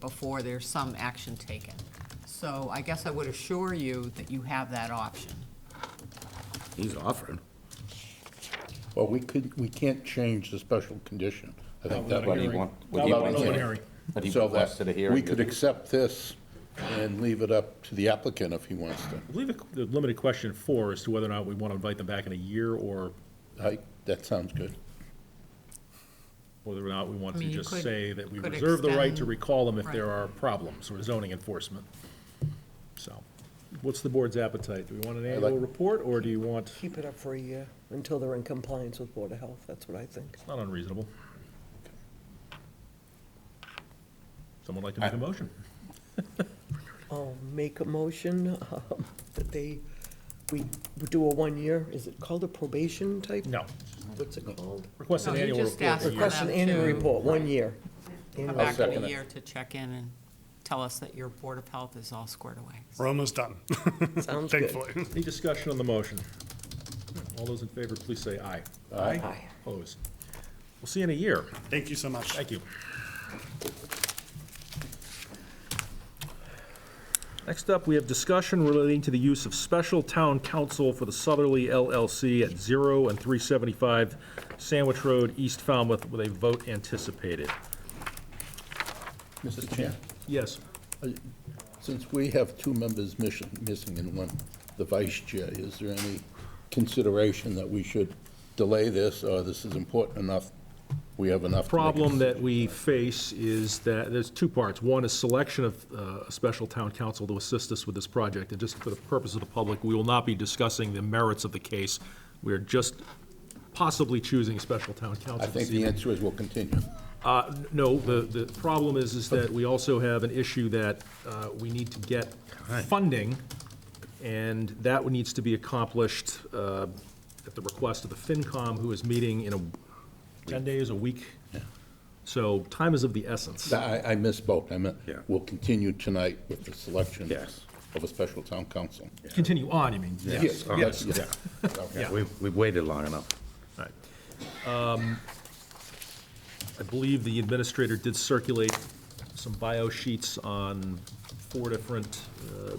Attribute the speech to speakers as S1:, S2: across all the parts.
S1: before there's some action taken. So I guess I would assure you that you have that option.
S2: He's offered.
S3: Well, we could, we can't change the special condition. I think
S4: Not
S3: that
S4: without
S3: would
S4: a
S3: be
S4: hearing.
S2: want-
S4: Not
S2: what he
S4: without an
S2: wants
S4: open
S2: to-
S4: hearing.
S2: But he
S3: So that
S2: requested a hearing.
S3: We could accept this and leave it up to the applicant if he wants to.
S4: I believe the- the limited question four is to whether or not we want to invite them back in a year or
S3: I, that sounds good.
S4: whether or not we want
S1: I
S4: to
S1: mean, you
S4: just
S1: could-
S4: say that we
S1: could
S4: reserve the right to
S1: extend-
S4: recall them if there
S1: right.
S4: are problems with zoning enforcement. So, what's the board's appetite? Do we want an
S3: like-
S4: annual report or do you want,
S5: Keep it up for a year until they're in compliance with Board of Health, that's what I think.
S4: not unreasonable. Someone like to make a motion?
S5: I'll make a motion um, that they, we do a one-year, is it called a probation type?
S4: No,
S5: What's it called?
S4: request an
S1: No, he
S4: annual
S1: just
S4: report.
S1: asked
S4: for a
S1: for
S4: year.
S5: Request an annual
S1: Them to-
S5: report, one year.
S1: Come
S5: Annual
S1: back in
S3: second
S1: a
S3: it.
S1: year to check in and tell us that your Board of Health is all squared away.
S6: We're almost done,
S5: Sounds good.
S6: thankfully.
S4: Any discussion on the motion? All those in favor, please say aye.
S5: Aye.
S4: Opposed? We'll see you in a year.
S6: Thank you so much.
S4: Thank you. Next up, we have discussion relating to the use of special town council for the Southerly LLC at 0 and 375 Sandwich Road, East Falmouth, with a vote anticipated.
S3: Mr. Chair,
S4: Yes.
S3: since we have two members mission, missing and one, the vice chair, is there any consideration that we should delay this, or this is important enough? We have enough. to make a
S4: problem that we face is that, there's two parts. One is selection of uh, a special town council to assist us with this project. And just for the purpose of the public, we will not be discussing the merits of the case. We're just possibly choosing special town
S3: I
S4: council.
S3: think
S4: this
S3: the
S4: evening.
S3: answer is we'll continue.
S4: Uh, No, the, the problem is, is that we also have an issue that uh, we need to get funding, and that one needs to be accomplished uh, at the request of the FinCom, who is meeting in a, 10 days, a week. So time is of the essence.
S3: I, I misspoke, I meant,
S2: Yeah.
S3: we'll continue tonight with the selection
S2: Yes.
S3: of a special town council.
S4: Continue on, you mean?
S3: Yes,
S4: Yes,
S3: yeah. Okay.
S4: yeah.
S2: We, we've waited long enough.
S4: All right. Um, I believe the administrator did circulate some bio sheets on four different uh,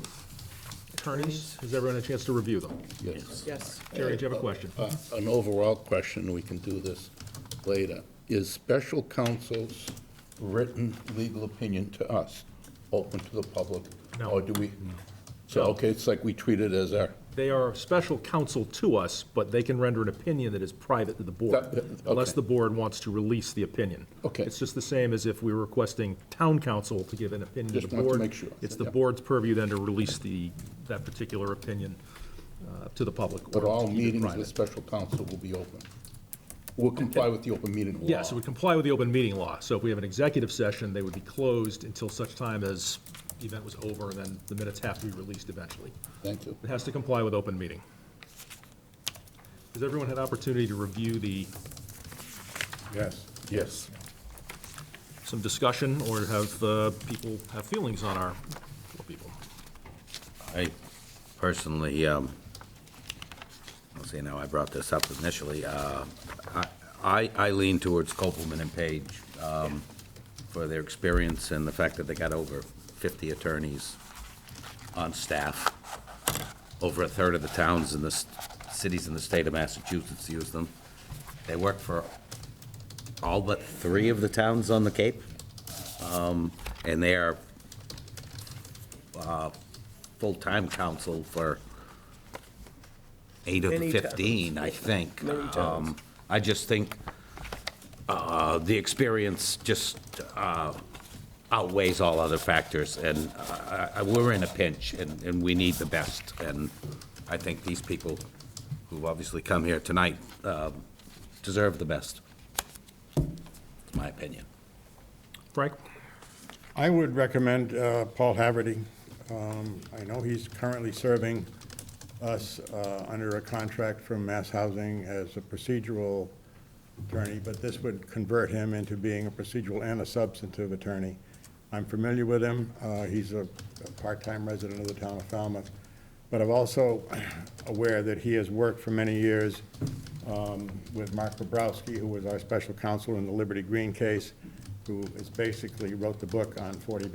S4: attorneys. Has everyone had a chance to review them?
S3: Yes.
S5: Yes.
S4: Jerry, do you have a question?
S3: Uh, An overall question, we can do this later. Is special counsel's written legal opinion to us open to the public?
S4: No.
S3: Or do we, so, okay, it's like we treat it as our,
S4: They are special counsel to us, but they can render an opinion that is private to the
S3: That-
S4: board,
S3: that-
S4: unless
S3: okay.
S4: the board wants to release the opinion.
S3: Okay.
S4: It's just the same as if we were requesting town council to give an opinion to the
S3: Just wanted to
S4: board.
S3: make sure.
S4: It's the
S3: Yeah.
S4: board's purview then to release the, that particular opinion uh, to the public. or
S3: but
S4: to
S3: all
S4: keep it
S3: meetings
S4: private.
S3: with special counsel will be open. We'll comply with the open meeting law.
S4: Yes, it would comply with the open meeting law. So if we have an executive session, they would be closed until such time as the event was over, and then the minutes have to be released eventually.
S3: Thank you.
S4: It has to comply with open meeting. Has everyone had opportunity to review the,
S3: Yes. Yes.
S4: some discussion, or have uh, people have feelings on our, well, people?
S2: I personally, um, let's see, now I brought this up initially, uh, I- I, I lean towards Copeland and Page, um, for their experience and the fact that they got over fifty attorneys on staff. Over a third of the towns in the, s- cities in the state of Massachusetts use them. They work for all but three of the towns on the Cape. Um, and they are uh, full-time counsel for eight of the
S5: Many towns.
S2: 15, I think.
S5: Many towns.
S2: Um, I just think uh, the experience just uh, outweighs all other factors, and uh, I- I- we're in a pinch, and and we need the best. And I think these people, who obviously come here tonight, um, deserve the best, It's my opinion.
S4: Frank?
S7: I would recommend uh, Paul Haverty. Um, I know he's currently serving us uh, under a contract from Mass Housing as a procedural attorney, but this would convert him into being a procedural and a substantive attorney. I'm familiar with him. Uh, He's a a part-time resident of the town of Falmouth. But I'm also aware that he has worked for many years um, with Mark Bobrowski, who was our special counsel in the Liberty Green case, who is basically wrote the book on 40B